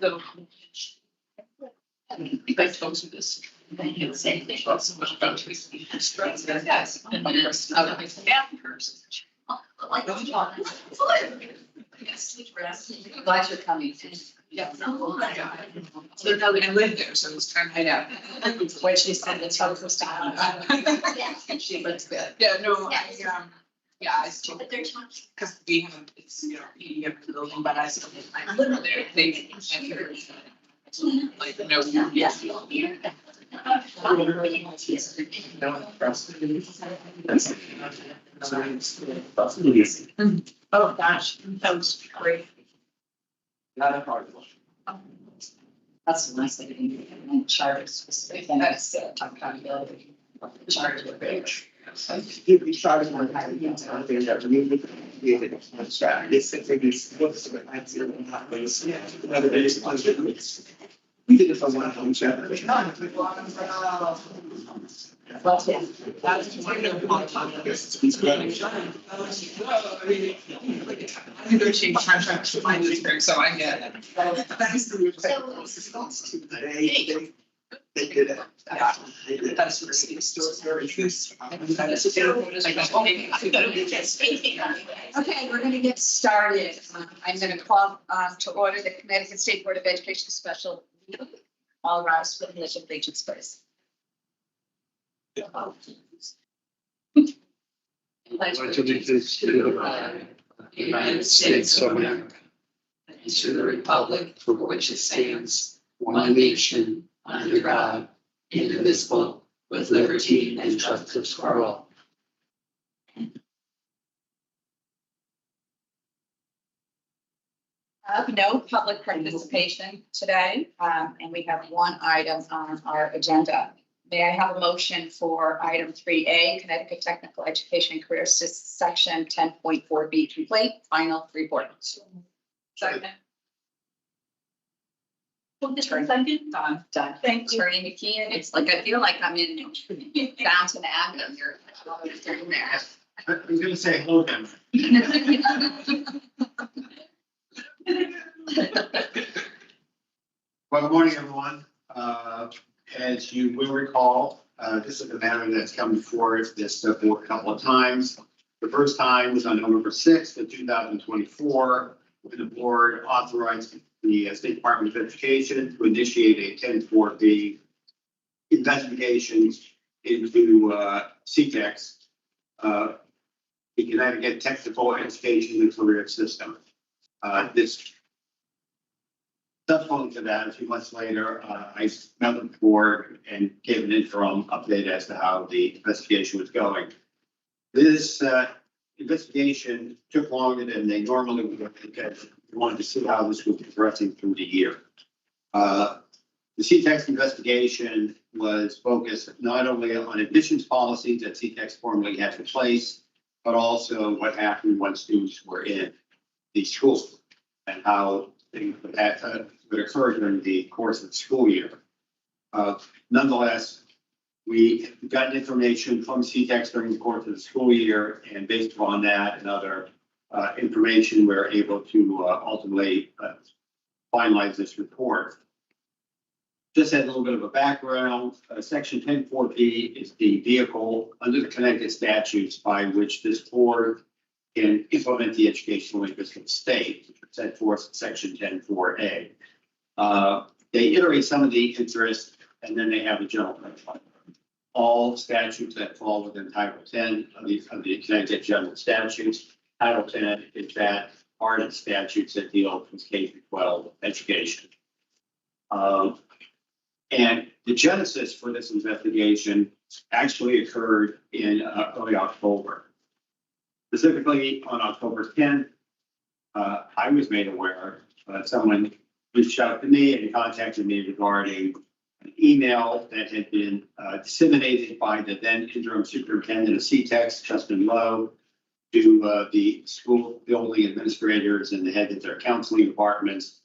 go. You guys go through this. Thank you. Say, thank you so much about trees. Yes. And then it's out of my family person. Like, Don't talk. Yes. Glad you're coming. Yeah. So now that I live there, so it's time to hide out. When she said it's how close to home. She lives there. Yeah, no, I, um, yeah, I still. But they're talking. Because we haven't, it's, you know, you have to building, but I still, I live there, they, I hear. Like, no, yes. Oh, gosh, that was great. That's the nice thing. And charge is specific. And I said, talk about ability. Charge with rich. You'd be charged one time, you know, something that really created a contract. They said they just books but I feel in that place. Yeah. Whether they just want to do it. We did it for one of them, Jeff. Well, yeah. That's one of my topics. It's great. I'm gonna change contracts to find this thing, so I get it. Thanks to your response to the day, they, they did it. Yeah. They did it. That's where it's Still stored. very true. Um, That is terrible. Like, okay, I gotta be kidding. Okay, we're gonna get started. Um, I'm gonna call um, to order the Connecticut State Board of Education special. meeting. All rise for the pledge of allegiance, please. Pledge of allegiance to the flag of the United States of America and to the republic for which it stands, one nation, under God, indivisible, with liberty and justice for all. have no public participation today, um, and we have one item on our agenda. May I have a motion for item three A, Connecticut Technical Education and Career Sys- Section ten point four B complete, final report. Second. Well, this is second. Done, done. Thank you. Attorney McKeon, it's like, I feel like I'm in Fountain Avenue, you're always doing there. I was gonna say Hogan. Well, good morning, everyone. Uh, As you will recall, uh, this is a matter that's come before this uh, board a couple of times. The first time was on November sixth of two thousand twenty-four, when the board authorized the uh, State Department of Education to initiate a ten four B investigation into uh, CTEX, uh, the Connecticut Technical Education and Career System. Uh, This Subsequent to that, a few months later, uh, I met with the board and gave an interim update as to how the investigation was going. This uh, investigation took longer than they normally would because we wanted to see how this was progressing through the year. Uh, The CTEX investigation was focused not only on admissions policies that CTEX formerly had in place, but also what happened when students were in the school and how things would that uh, would occur during the course of the school year. Uh, Nonetheless, we got information from CTEX during the course of the school year, and based upon that and other uh, information, we're able to uh, ultimately uh, finalize this report. Just as a little bit of a background, uh, section ten four B is the vehicle under the Connecticut statutes by which this board and implement the educational interests of the state, which are set forth in section ten four A. Uh, They iterate some of the interests, and then they have a general principle. All statutes that fall within Title ten of the, of the Connecticut General Statutes, Title ten is that part of the statutes that deal with K through twelve education. Um, And the genesis for this investigation actually occurred in uh, early October specifically on October tenth, uh, I was made aware, uh, someone reached out to me and contacted me regarding an email that had been, uh, disseminated by the then interim superintendent of CTEX, Justin Lowe, to, uh, the school building administrators and the heads of their counseling departments,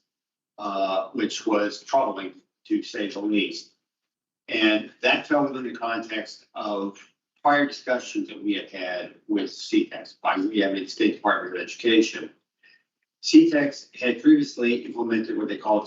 uh, which was troubling to say the least. And that fell within the context of prior discussions that we had had with CTEX, by we have the E State Department of Education. CTEX had previously implemented what they call